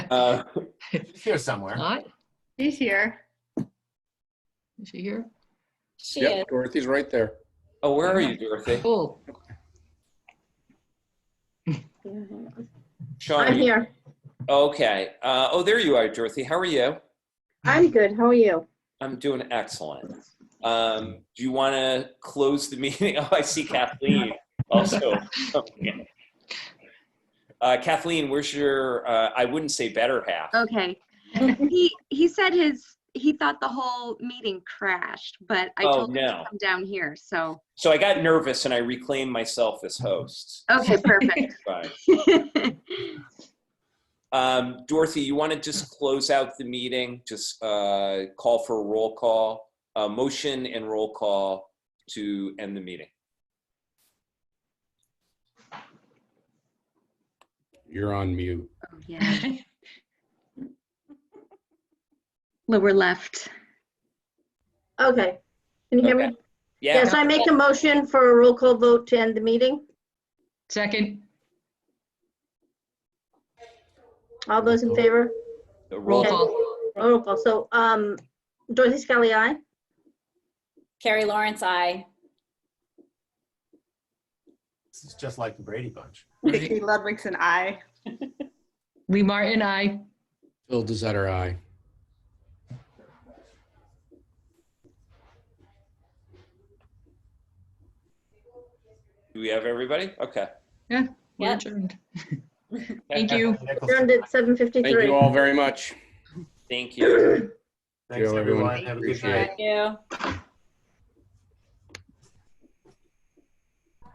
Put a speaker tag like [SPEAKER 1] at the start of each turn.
[SPEAKER 1] Uh, She's here somewhere.
[SPEAKER 2] Not?
[SPEAKER 3] She's here.
[SPEAKER 2] Is she here?
[SPEAKER 4] She is.
[SPEAKER 5] Yep, Dorothy's right there.
[SPEAKER 1] Oh, where are you, Dorothy?
[SPEAKER 2] Cool.
[SPEAKER 1] Sean, are
[SPEAKER 6] I'm
[SPEAKER 1] you-
[SPEAKER 6] here.
[SPEAKER 1] okay. Uh, oh, there you are, Dorothy. How are you?
[SPEAKER 6] I'm good. How are you?
[SPEAKER 1] I'm doing excellent. Um, do you want to close the meeting? Oh, I see Kathleen also. Okay. Uh, Kathleen, where's your, uh, I wouldn't say better half.
[SPEAKER 7] Okay. he he said his he thought the whole meeting crashed, but I
[SPEAKER 1] Oh,
[SPEAKER 7] told him
[SPEAKER 1] no.
[SPEAKER 7] to come down here. So
[SPEAKER 1] So I got nervous and I reclaimed myself as host.
[SPEAKER 7] okay, perfect. Oh,
[SPEAKER 1] Fine. Um, Dorothy, you want to just close out the meeting, just uh, call for a roll call, a motion and roll call to end the meeting.
[SPEAKER 5] You're on mute.
[SPEAKER 7] Oh, yeah. Lower left.
[SPEAKER 6] Okay. Can you hear me?
[SPEAKER 1] Yeah,
[SPEAKER 6] Yes, I make a motion for a roll call vote to end the meeting.
[SPEAKER 2] Second,
[SPEAKER 6] All those in favor?
[SPEAKER 1] a
[SPEAKER 2] roll
[SPEAKER 1] roll call.
[SPEAKER 2] call.
[SPEAKER 6] Roll call. So, um, Dorothy Scully, aye?
[SPEAKER 4] Carrie Lawrence, I.
[SPEAKER 1] This is just like the Brady Bunch.
[SPEAKER 3] Vicky Ludwigson, I.
[SPEAKER 2] Lee Martin, I.
[SPEAKER 5] Phil Dezetter, aye.
[SPEAKER 1] Do we have everybody? Okay.
[SPEAKER 2] We're
[SPEAKER 4] Yep.
[SPEAKER 2] adjourned. Thank you.
[SPEAKER 6] Adjourned at seven
[SPEAKER 5] Thank
[SPEAKER 6] fifty-three.
[SPEAKER 5] you all very much.
[SPEAKER 1] Thank you.
[SPEAKER 5] Thanks, everyone.
[SPEAKER 8] Have a good
[SPEAKER 5] Appreciate it.
[SPEAKER 8] night.
[SPEAKER 4] Thank you.